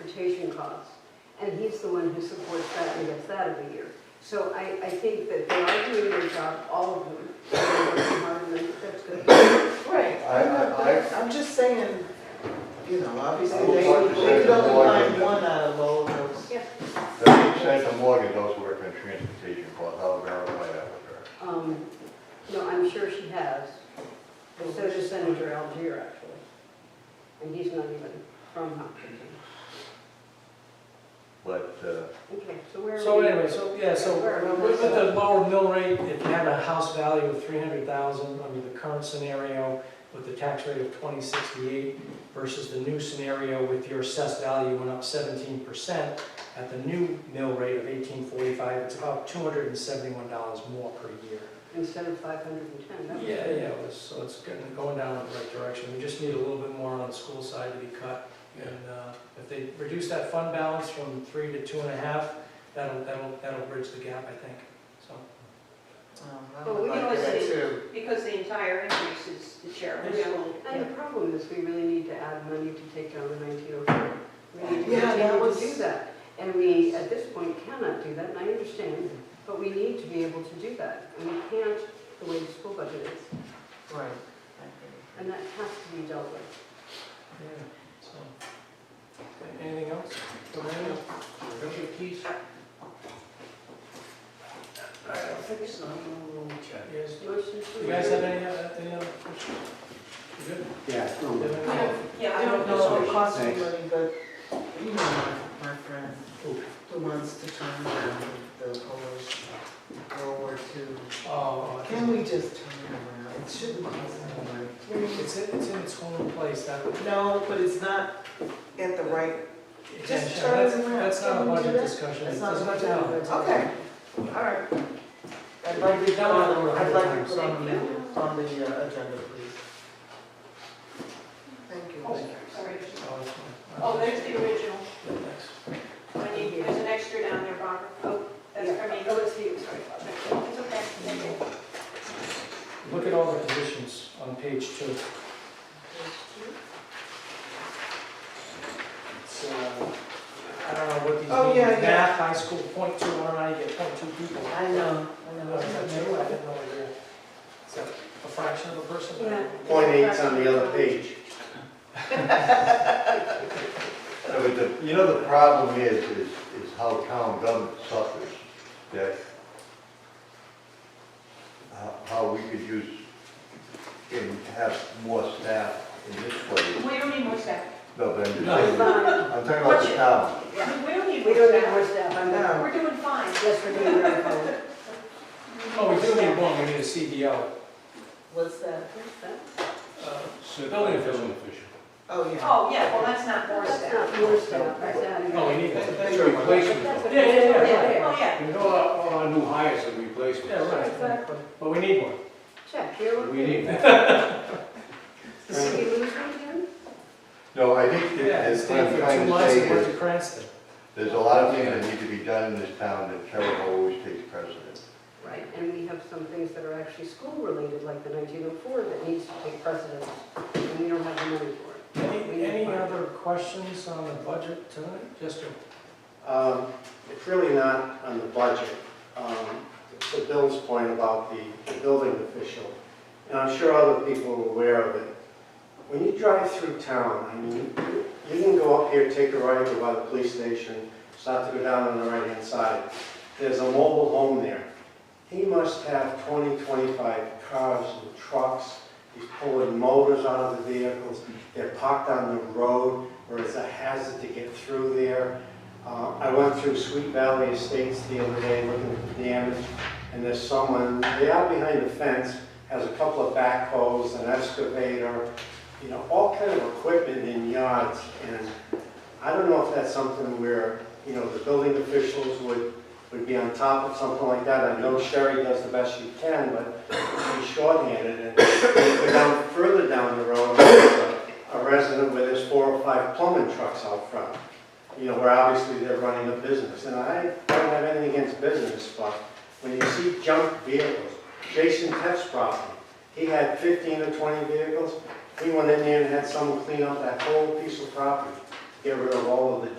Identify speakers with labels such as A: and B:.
A: transportation costs. And he's the one who supports that and gets that every year. So I, I think that they are doing their job, all of them. They're working hard and that's- that's good.
B: Right,
C: I-
B: I'm not,
C: I-
B: that- I'm just saying, you know, obviously,
C: I would
B: they,
C: like to say
B: they could only
C: the lawyer-
B: find one out of all of those.
C: Thirty percent of Morgan does work on transportation costs, I'll verify that with her.
A: Um, No, I'm sure she has. But so does Senator Algier, actually. And he's not even from Hopkinton.
C: But, uh,
A: Okay, so where are we?
D: So anyway, so, yeah, so
A: Where are we?
D: with with the lower mill rate, if you had a house value of three hundred thousand under the current scenario with the tax rate of twenty sixty-eight versus the new scenario with your assessed value went up seventeen percent at the new mill rate of eighteen forty-five, it's about two hundred and seventy-one dollars more per year.
A: Instead of 510, that was.
D: Yeah, yeah, it was- so it's getting, going down in the right direction. We just need a little bit more on the school side to be cut. And uh, if they reduce that fund balance from three to two and a half, that'll, that'll, that'll bridge the gap, I think, so.
B: Um, I
E: Well,
B: would
E: we
B: like
E: can always
B: that
E: say-
B: too.
E: Because the entire increase is the sheriff's.
A: And the problem is, we really need to add money to take down the 1904. We need to
B: Yeah, that
A: continue
B: was-
A: to do that. And we, at this point, cannot do that, and I understand, but we need to be able to do that. And we can't, the way the school budget is,
B: Right.
A: and that has to be dealt with.
D: Yeah, so. Anything else? Joanna? Yes.
A: Motion to
D: You guys have
A: adjourn.
D: any, uh, any other questions? You good?
F: Yeah.
D: You have any-
E: Yeah,
B: I don't
F: know
B: know
F: if
B: if it
F: it
B: costs me
F: Thanks.
B: money, but you know my, my friend
D: Who?
B: who wants to turn around the Polish World War II.
D: Oh, I
B: Can
D: think
B: we just turn it around? It shouldn't cost any money.
D: it's, in- it's in its own place, that.
B: No, but it's not at the right, Just
D: Yeah,
B: turn
D: that's-
B: it around.
D: That's not a
B: Can we do
D: budget
B: that?
D: discussion.
B: it's
D: It
B: not
D: doesn't
B: much
D: have to
B: out of
D: happen.
B: it. Okay, all right. I'd like to,
D: We've done it over a
B: I'd
D: hundred
B: like to
D: times.
B: put on the, menu- on the uh, agenda, please. Thank you.
E: Sorry.
D: Oh, that's fine.
E: Oh, there's the original.
D: Yeah, thanks.
E: I need, there's an extra down there, Barbara. Oh, that's for me.
A: Oh, it's you, sorry.
E: It's okay, thank you.
D: Look at all the positions on page two. It's, uh, I don't know what these
B: Oh,
D: mean.
B: yeah, yeah.
D: Math, high school, point two, I don't know how you get point two people.
B: I know, I
D: Uh,
B: know.
D: is that two? I have no idea. Is that a fraction of a person?
A: Yeah.
F: Point eight's on the other page.
C: no, but the, you know, the problem is, is, is how town government suffers, that how- how we could use, and have more staff in this place.
E: We don't need more staff.
C: No, but I'm just
D: No.
C: saying,
A: Fine,
C: I'm talking about the town.
A: yeah.
E: We don't need
A: We
E: more
A: don't need more
E: staff.
A: staff, I'm
B: No.
A: not,
E: We're doing fine.
A: yes, we're doing very well.
D: Oh, we do need one, we need a CDO.
B: What's that?
A: What's that?
D: Uh, Building official.
B: Oh, yeah.
E: Oh, yeah, well, that's not more
A: That's
E: staff.
A: not more staff, that's adding.
D: Oh, we need that.
F: That's a replacement.
A: That's what-
D: Yeah, yeah, yeah,
A: Yeah, yeah.
E: Oh, yeah.
F: You know, all all our new hires are replacements.
D: Yeah, right.
A: Exactly.
D: But we need one.
A: Check, here,
F: We need.
A: did we lose one again?
C: No, I think that,
D: Yeah,
C: that's what I'm
D: stayed for two
C: trying to
D: months
C: say
D: and went
C: is,
D: to Cranston.
C: there's a lot of things that need to be done in this town that Trevor always takes precedence.
A: Right, and we have some things that are actually school-related, like the 1904, that needs to take precedence, and we don't have the money for it.
D: Any, any other questions on the budget tonight? Just a
F: Um, It's really not on the budget. Um, To Bill's point about the the building official, and I'm sure other people are aware of it, when you drive through town, I mean, you can go up here, take a right, go by the police station, start to go down on the right-hand side. There's a mobile home there. He must have 20, 25 cars and trucks. He's pulling motors out of the vehicles. They're parked on the road where it's a hazard to get through there. Uh, I went through Sweet Valley Estates the other day looking at the damage, and there's someone, they are behind the fence, has a couple of backhoes, an excavator, you know, all kind of equipment in yards, and I don't know if that's something where, you know, the building officials would, would be on top of something like that. I know Sherry does the best she can, but she's shorthanded, and if you go down, further down the road, there's a a resident where there's four or five plumbing trucks out front you know, where obviously they're running a business, and I don't have anything against business, but when you see junk vehicles, Jason Teff's property, he had fifteen or twenty vehicles, he went in there and had someone clean up that whole piece of property, get rid of all of the